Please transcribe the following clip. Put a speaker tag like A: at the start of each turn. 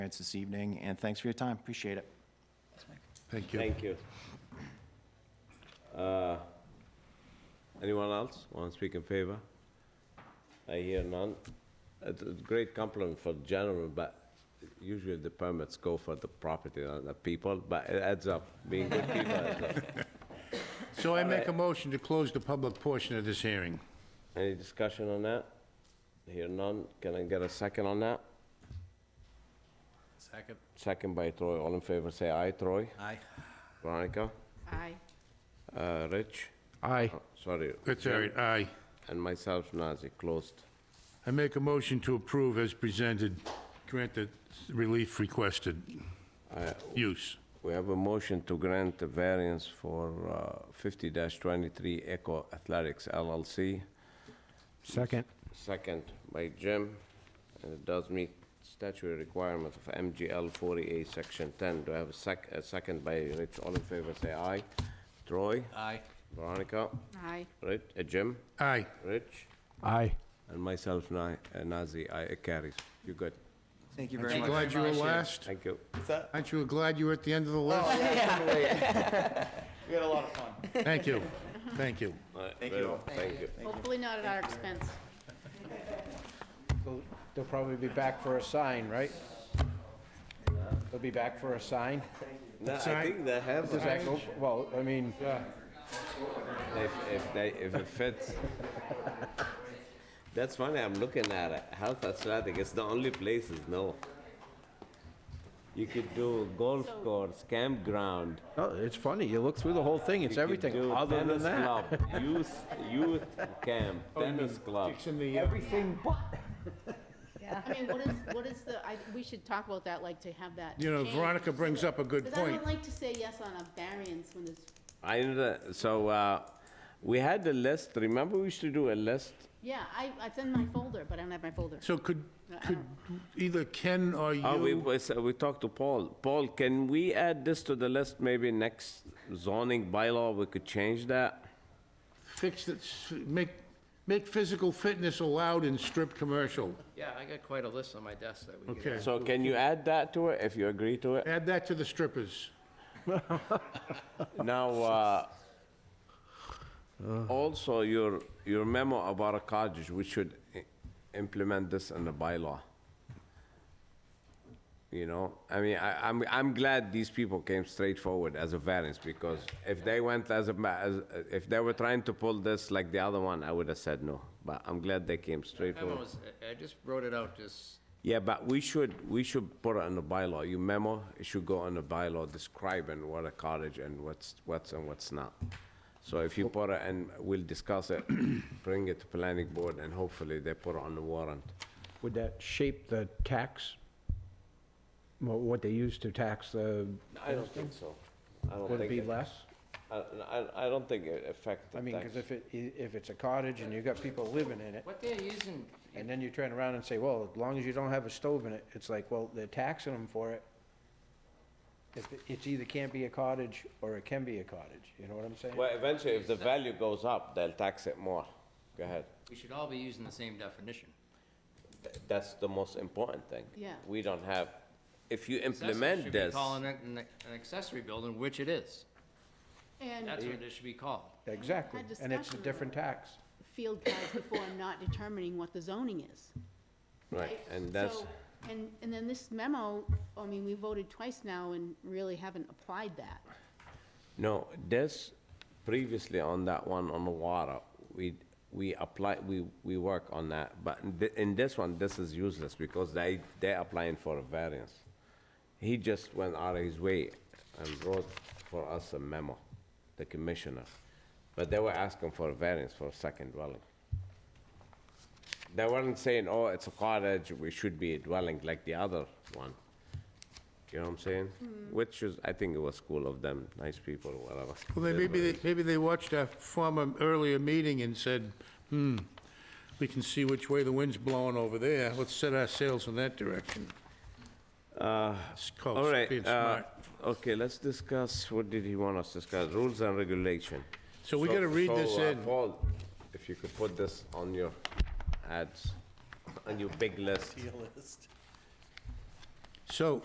A: experience this evening, and thanks for your time. Appreciate it.
B: Thank you.
C: Thank you. Uh, Anyone else want to speak in favor? I hear none. It's a great compliment for general, but usually the permits go for the property, not the people, but it adds up, being good people adds up.
B: So I make a motion to close the public portion of this hearing.
C: Any discussion on that? Hear none, can I get a second on that?
D: Second.
C: Second by Troy, all in favor, say aye, Troy.
D: Aye.
C: Veronica?
E: Aye.
C: Uh, Rich?
B: Aye.
C: Oh, Sorry.
B: That's all right, aye.
C: And myself, Nazir, closed.
B: I make a motion to approve as presented, grant the relief requested use.
C: We have a motion to grant the variance for uh, 50-23 Echo Athletics LLC.
F: Second.
C: Second by Jim, and it does meet statutory requirements of MGL 48, Section 10. Do I have a sec, a second by Rich? All in favor, say aye. Troy?
D: Aye.
C: Veronica?
E: Aye.
C: Rich, uh, Jim?
B: Aye.
C: Rich?
F: Aye.
C: And myself, Na- uh, Nazir, aye, it carries. You're good.
A: Thank you very
B: Aren't you
A: much.
B: glad you were
D: much, yeah.
B: last?
C: Thank you.
B: Aren't you glad you were at the end of the list?
A: We had a lot of fun.
B: Thank you, thank you.
C: Thank you. Thank you.
E: Hopefully not at our expense.
G: They'll- They'll probably be back for a sign, right? They'll be back for a sign?
C: No, I think they have,
G: Does that go, well, I mean,
C: if, if they, if it fits. That's funny, I'm looking at it, Health Athletic, it's the only places, no. You could do golf course, campground.
G: oh, it's funny, you look through the whole thing, it's
C: you could do
G: everything, other than
C: tennis
G: that. Oh,
C: club, Youth, youth camp, tennis club.
G: Everything but.
E: I mean, what is, what is the, I, we should talk about that, like, to have that.
B: You know,
E: changed.
B: Veronica brings up a good
E: Because I
B: point.
E: don't like to say yes on a variance when there's,
C: I, know that- so, uh, we had a list, remember we used to do a list?
E: yeah, I, it's in my folder, but I don't have my folder.
B: So could,
E: I
B: could either Ken or
C: Oh, we,
B: you,
C: we s- we talked to Paul. Paul, can we add this to the list, maybe next zoning bylaw, we could change that?
B: fix it, s- make, make physical fitness allowed in strip commercial?
D: Yeah, I got quite a list on my desk that we could.
B: Okay,
C: So can you add that to it, if you agree to it?
B: add that to the strippers.
C: Now, uh, also, your, your memo about a cottage, we should i- implement this in the bylaw. You know, I mean, I, I'm, I'm glad these people came straight forward as a variance, because if they went as a, ma- as, if they were trying to pull this like the other one, I would have said no, but I'm glad they came straight
D: That one
C: forward.
D: was, I- I just wrote it out, just,
C: Yeah, but we should, we should put it on the bylaw, your memo, it should go on the bylaw describing what a cottage and what's, what's and what's not. So if you put it, and we'll discuss it, bring it to planning board, and hopefully they put it on the warrant.
F: Would that shape the tax? What, what they use to tax the,
C: I don't think so. I don't
F: would it
C: think,
F: be
C: it-
F: less?
C: I, I, I don't think it affects the
G: I mean, because
C: tax.
G: if it, i- if it's a cottage and you got people living in it,
D: what they're using,
G: and then you turn around and say, well, as long as you don't have a stove in it, it's like, well, they're taxing them for it. If it- It's either can't be a cottage, or it can be a cottage, you know what I'm saying?
C: Well, eventually, if the value goes up, they'll tax it more. Go ahead.
D: we should all be using the same definition.
C: Th- That's the most important thing.
E: Yeah.
C: We don't have, if you
D: Accessory
C: implement
D: should be
C: this.
D: Calling it an an accessory building, which it is.
E: And
D: That's what it should be called.
G: Exactly,
E: Had
G: and it's a
E: discussion
G: different tax.
E: field guides before I'm not determining what the zoning is.
C: Right, and that's.
E: So- And, and then this memo, I mean, we voted twice now and really haven't applied that.
C: No, this, previously on that one on the water, we, we apply, we, we work on that, but in thi- in this one, this is useless because they, they're applying for a variance. He just went out of his way and wrote for us a memo, the commissioner, but they were asking for a variance for a second dwelling. They weren't saying, oh, it's a cottage, we should be a dwelling like the other one. You know what I'm saying? Which is, I think it was cool of them, nice people, whatever.
B: Well, they,
C: They
B: maybe,
C: were-
B: they, maybe they watched our former earlier meeting and said, hmm, we can see which way the wind's blowing over there, let's set our sails in that direction. It's called
C: Uh, All right,
B: being
C: uh,
B: smart.
C: okay, let's discuss, what did he want us to discuss? Rules and regulation.
B: So we gotta read
C: so,
B: this
C: uh,
B: in.
C: Paul, if you could put this on your ads, on your big list.
B: So